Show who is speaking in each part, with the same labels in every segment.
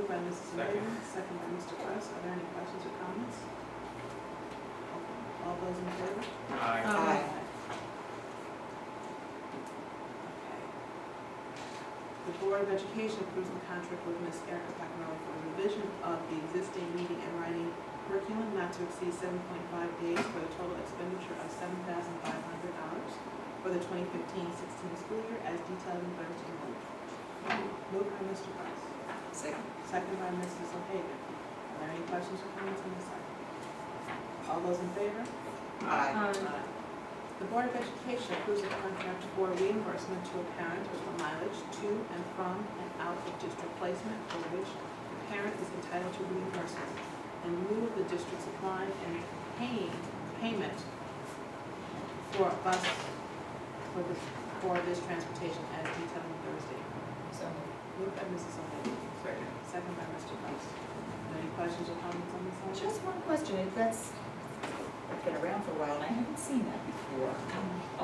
Speaker 1: Second.
Speaker 2: Second by Mr. West. Are there any questions or comments? All those in favor?
Speaker 1: Aye.
Speaker 3: Aye.
Speaker 2: Okay. The Board of Education approves the contract with Ms. Erica Pacarelli for revision of the existing reading and writing curriculum not to exceed seven point five days for a total expenditure of seven thousand five hundred dollars for the 2015-16 school year as detailed in Thursday note. Moved by Mr. Price,
Speaker 3: Second.
Speaker 2: second by Mrs. O'Hagan. Are there any questions or comments on this item? All those in favor?
Speaker 3: Aye.
Speaker 4: Um,
Speaker 2: uh, The Board of Education approves a contract for reimbursement to a parent for mileage to and from and out of district placement for which the parent is entitled to reimbursement in lieu of the district supplying and paying payment for bus, for this, for this transportation as detailed on Thursday.
Speaker 3: So
Speaker 2: Moved by Mrs. O'Hagan,
Speaker 1: Second.
Speaker 2: second by Mr. Price. Any questions or comments on this item?
Speaker 3: Just one question, if that's, it's been around for a while, and I haven't seen that before.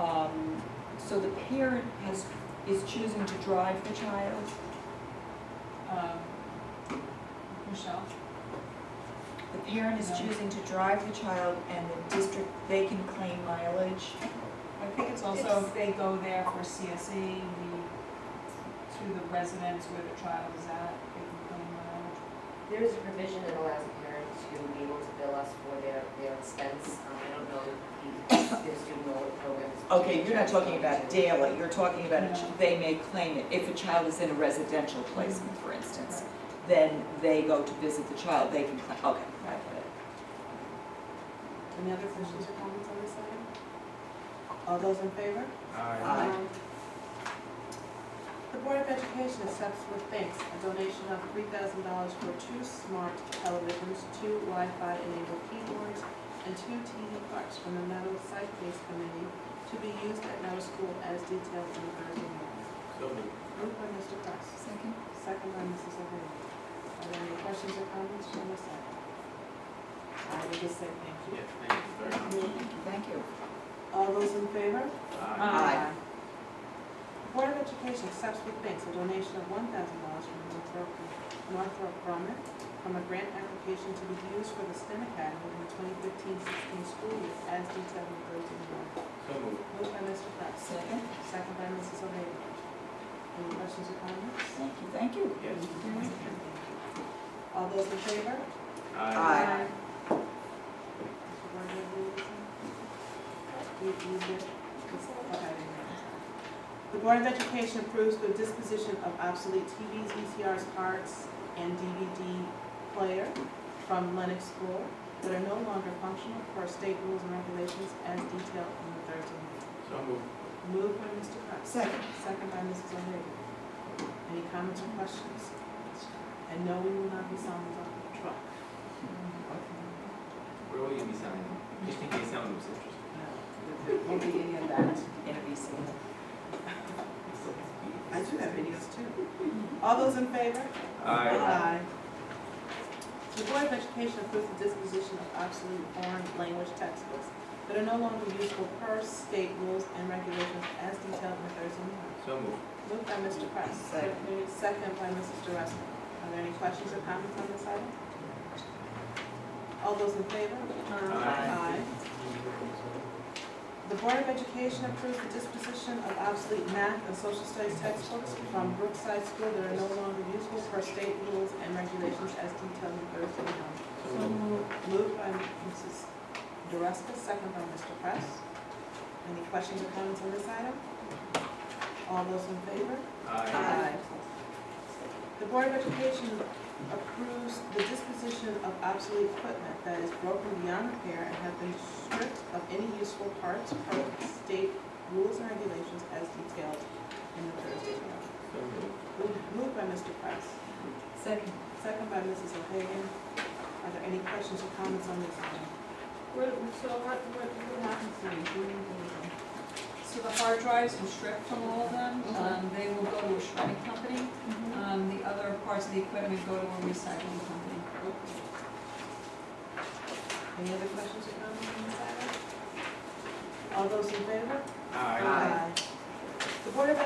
Speaker 3: Um, So the parent has, is choosing to drive the child?
Speaker 5: Um, Michelle?
Speaker 3: The parent is
Speaker 5: No.
Speaker 3: choosing to drive the child and the district, they can claim mileage?
Speaker 5: I think it's also if they go there for CSE, the, to the residence where the child is at, they can claim mileage.
Speaker 4: There is a provision that allows a parent to be able to bill us for their, their expense. Um, I don't know if the, the student or programs.
Speaker 3: Okay, you're not talking about daily, you're talking about, a ch-
Speaker 5: No.
Speaker 3: they may claim it, if a child is in a residential placement, for instance, then they go to visit the child, they can claim, okay, I get it.
Speaker 2: Any other questions or comments on this item? All those in favor?
Speaker 1: Aye.
Speaker 3: Aye.
Speaker 2: The Board of Education accepts with thanks a donation of three thousand dollars for two smart televisions, two Wi-Fi enabled keyboards, and two TV parts from the Meadow Site-Based Committee to be used at Meadow School as detailed in the Thursday notice.
Speaker 1: So moved.
Speaker 2: Moved by Mr. Price,
Speaker 3: Second?
Speaker 2: second by Mrs. O'Hagan. Are there any questions or comments from this item? I would just say thank you.
Speaker 1: Yes, thank you very much.
Speaker 3: Thank you.
Speaker 2: All those in favor?
Speaker 1: Aye.
Speaker 3: Aye.
Speaker 2: Board of Education accepts with thanks a donation of one thousand dollars from Northrop, Northrop Grumman from a grant application to be used for the STEM Academy in the 2015-16 school year as detailed in Thursday morning.
Speaker 1: So moved.
Speaker 2: Moved by Mr. Price,
Speaker 3: Second?
Speaker 2: second by Mrs. O'Hagan. Any questions or comments?
Speaker 3: Thank you, thank you.
Speaker 1: Yes.
Speaker 2: All those in favor?
Speaker 3: Aye.
Speaker 2: Mr. Gardner, do you have anything? You, you did? Okay, I didn't notice. The Board of Education approves the disposition of obsolete TVs, VCRs, cards, and DVD player from Lenox School that are no longer functional per state rules and regulations as detailed in the third amendment.
Speaker 1: So moved.
Speaker 2: Moved by Mr. Price,
Speaker 3: Second?
Speaker 2: second by Mrs. O'Hagan. Any comments or questions? And no, we will not be selling the truck.
Speaker 1: Where will you be signing? Just in case someone was interested.
Speaker 2: No, won't be any of that.
Speaker 3: NBC.
Speaker 2: I do have videos too. All those in favor?
Speaker 1: Aye.
Speaker 2: The Board of Education approves the disposition of obsolete foreign language textbooks that are no longer useful per state rules and regulations as detailed in the Thursday meeting.
Speaker 1: So moved.
Speaker 2: Moved by Mr. Price.
Speaker 3: Second.
Speaker 2: Second by Mrs. DeRusco. Are there any questions or comments on this item? All those in favor?
Speaker 1: Aye.
Speaker 2: The Board of Education approves the disposition of obsolete math and social studies textbooks from Brookside School that are no longer useful per state rules and regulations as detailed in Thursday meeting.
Speaker 1: So moved.
Speaker 2: Moved by Mrs. DeRusco, second by Mr. Press. Any questions or comments on this item? All those in favor?
Speaker 1: Aye.
Speaker 2: Uh,
Speaker 3: Aye.
Speaker 2: The Board of Education approves the disposition of obsolete equipment that is broken beyond repair and have been stripped of any useful parts per state rules and regulations as detailed in the Thursday memo.
Speaker 1: So moved.
Speaker 2: Moved- Moved by Mr. Price,
Speaker 3: Second.
Speaker 2: second by Mrs. O'Hagan. Are there any questions or comments on this item?
Speaker 5: So the hard drives were stripped from all of them, um, they will go to a shredding company, um, the other parts of the equipment go to a recycling company.
Speaker 2: Any other questions or comments on this item? All those in favor?
Speaker 1: Aye.
Speaker 2: The Board of